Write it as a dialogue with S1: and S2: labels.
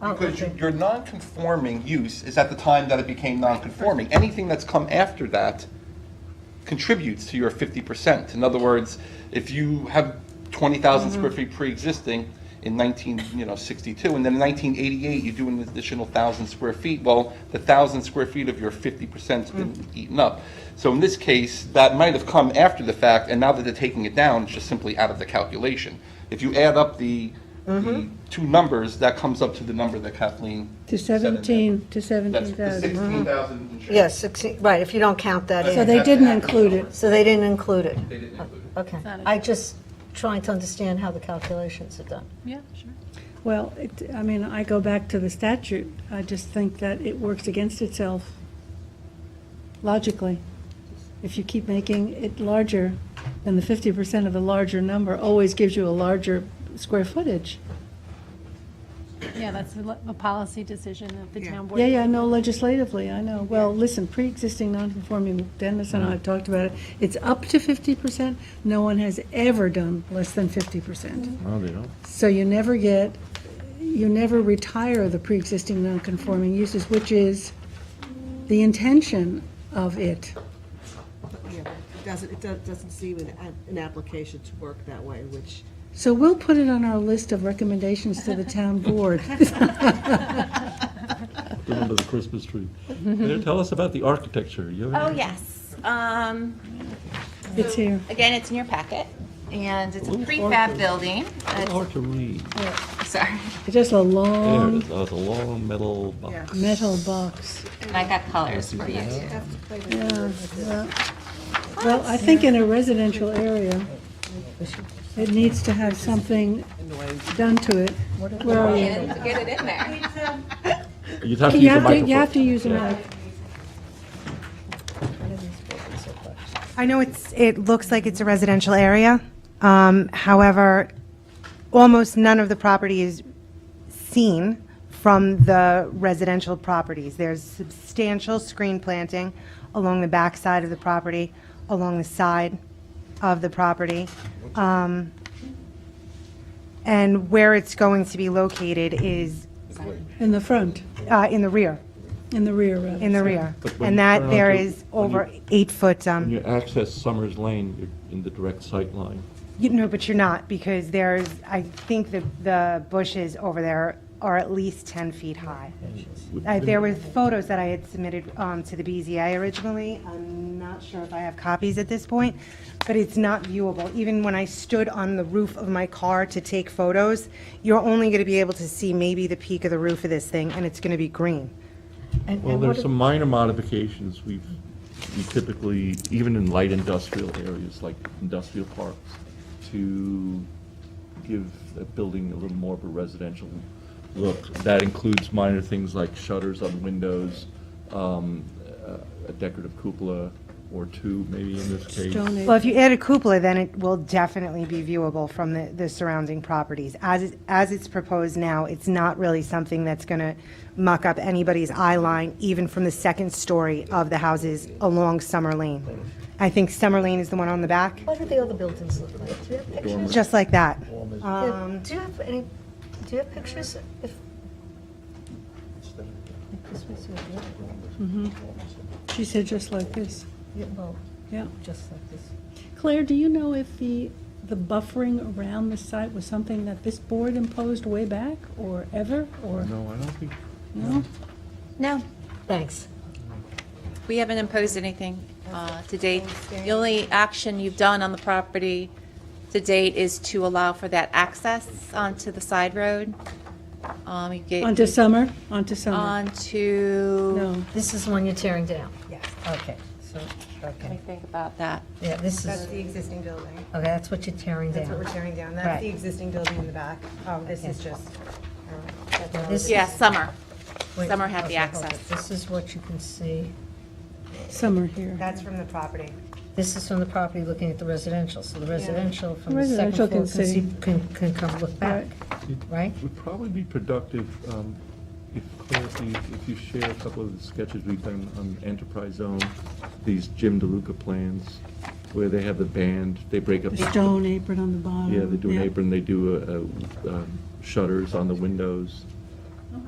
S1: Because you- your non-conforming use is at the time that it became non-conforming. Anything that's come after that contributes to your 50%. In other words, if you have 20,000
S2: Mm-hmm.
S1: square feet pre-existing in 19, you know, 62, and then in 1988, you do an additional 1,000 square feet, well, the 1,000 square feet of your 50%'s been
S2: Mm.
S1: eaten up. So in this case, that might have come after the fact, and now that they're taking it down, it's just simply out of the calculation. If you add up the, the two numbers, that comes up to the number that Kathleen
S2: Mm-hmm. To
S1: said in there.
S2: 17, to
S1: That's the
S2: 17,000.
S1: 16,000 and change.
S3: Yes, 16 right, if you don't count that
S2: So
S3: in.
S2: they didn't include it.
S3: So they didn't include it.
S1: They didn't include it.
S3: Okay. I just trying to understand how the calculations are done.
S4: Yeah, sure.
S2: Well, it, I mean, I go back to the statute. I just think that it works against itself logically. If you keep making it larger, then the 50% of the larger number always gives you a larger square footage.
S4: Yeah, that's a le- a policy decision of the town board.
S2: Yeah, yeah, no, legislatively, I know. Well, listen, pre-existing non-conforming, Dennis and I have talked about it. It's up to 50%. No one has ever done less than 50%.
S5: Well, they don't.
S2: So you never get, you never retire the pre-existing non-conforming uses, which is the intention of it.
S6: Yeah, but It doesn't, it do- doesn't seem an, a- an application to work that way, which,
S2: So we'll put it on our list of recommendations to the town board.
S5: Go under the Christmas tree. There, Tell us about the architecture. You have
S7: Oh,
S5: any-
S7: yes. Um,
S2: It's here.
S7: Again, it's in your packet, and it's a
S5: Ooh,
S7: prefab
S5: orchid.
S7: building.
S5: It's
S7: Uh,
S5: Hard to read.
S7: Sorry,
S2: It's just a
S5: There it
S2: long
S5: is. Oh, it's a long metal
S6: Yeah.
S5: box.
S2: metal box.
S7: and I got colors for you, too.
S6: have to play with
S2: Yeah, yeah. Well, I think in a residential area, it needs to have something done to it. Where are you?
S7: Get it- get it in there.
S5: You'd have to
S2: You
S5: use a
S2: have to,
S5: microphone.
S2: you have to use a
S5: Yeah.
S2: mic.
S8: I know it's, it looks like it's a residential area. Um, However, almost none of the property is seen from the residential properties. There's substantial screen planting along the backside of the property, along the side of the property. Um, And where it's going to be located is
S2: In the front,
S8: uh, in the rear,
S2: in the rear, rather.
S8: in the rear.
S5: But when
S8: And
S5: you
S8: that
S5: turn
S8: there
S5: onto-
S8: is
S5: when you-
S8: over eight-foot um,
S5: When you access Summers Lane, you're in the direct sight line.
S8: You, no, but you're not, because there's, I think the, the bushes over there are at least 10 feet high. Uh, There were photos that I had submitted um, to the BZA originally. I'm not sure if I have copies at this point, but it's not viewable. Even when I stood on the roof of my car to take photos, you're only going to be able to see maybe the peak of the roof of this thing, and it's going to be green.
S3: And-
S5: Well,
S3: and what
S5: there's some minor modifications we've, we typically, even in light industrial areas, like industrial parks, to give a building a little more of a residential look. That includes minor things like shutters on windows, um, uh, a decorative cupola or two, maybe in this case.
S2: Stone Age.
S8: Well, if you add a cupola, then it will definitely be viewable from the, the surrounding properties. As, it- as it's proposed now, it's not really something that's going to muck up anybody's eye line, even from the second story of the houses along Summer Lane. I think Summer Lane is the one on the back,
S3: What do the other buildings look like? Do you have pictures?
S8: just like that. Um,
S3: Yeah, Do you have any, do you have pictures? If Like this was your view?
S2: She said just like this,
S3: Yeah, Well,
S2: yeah.
S3: just like this.
S2: Claire, do you know if the, the buffering around the site was something that this board imposed way back, or ever, or,
S5: No, I don't think,
S2: no?
S7: No,
S3: Thanks.
S7: we haven't imposed anything uh, to date. The only action you've done on the property to date is to allow for that access onto the side road. Um, You get
S2: Onto summer, onto
S8: Uh,
S2: summer,
S7: onto.
S2: no.
S3: This is the one you're tearing down?
S8: Yes.
S3: Okay, so,
S7: Let me
S3: okay.
S7: think about that.
S3: Yeah, this is, okay,
S8: the existing building.
S3: that's what you're tearing down.
S8: tearing down.
S3: That's the Right.
S8: existing building in the back. Um, This uh,
S3: is
S8: just.
S3: This
S7: Yeah,
S3: is-
S7: summer.
S3: wait,
S7: Summer had the
S3: okay, hold it.
S7: access.
S3: This is what you can see.
S2: Summer here.
S8: That's from the property.
S3: This is from the property looking at the residential, so the residential from the second
S2: Residential
S3: floor
S2: can
S3: can
S2: see.
S3: see, can, can come look back, right?
S5: it would probably be productive um, if, Claire, if you- if you share a couple of the sketches we've done on Enterprise Zone, these Jim DeLuca plans, where they have the band, they break up.
S2: The stone apron on the bottom.
S5: Yeah, they do an apron, they do uh, uh, um, shutters on the windows,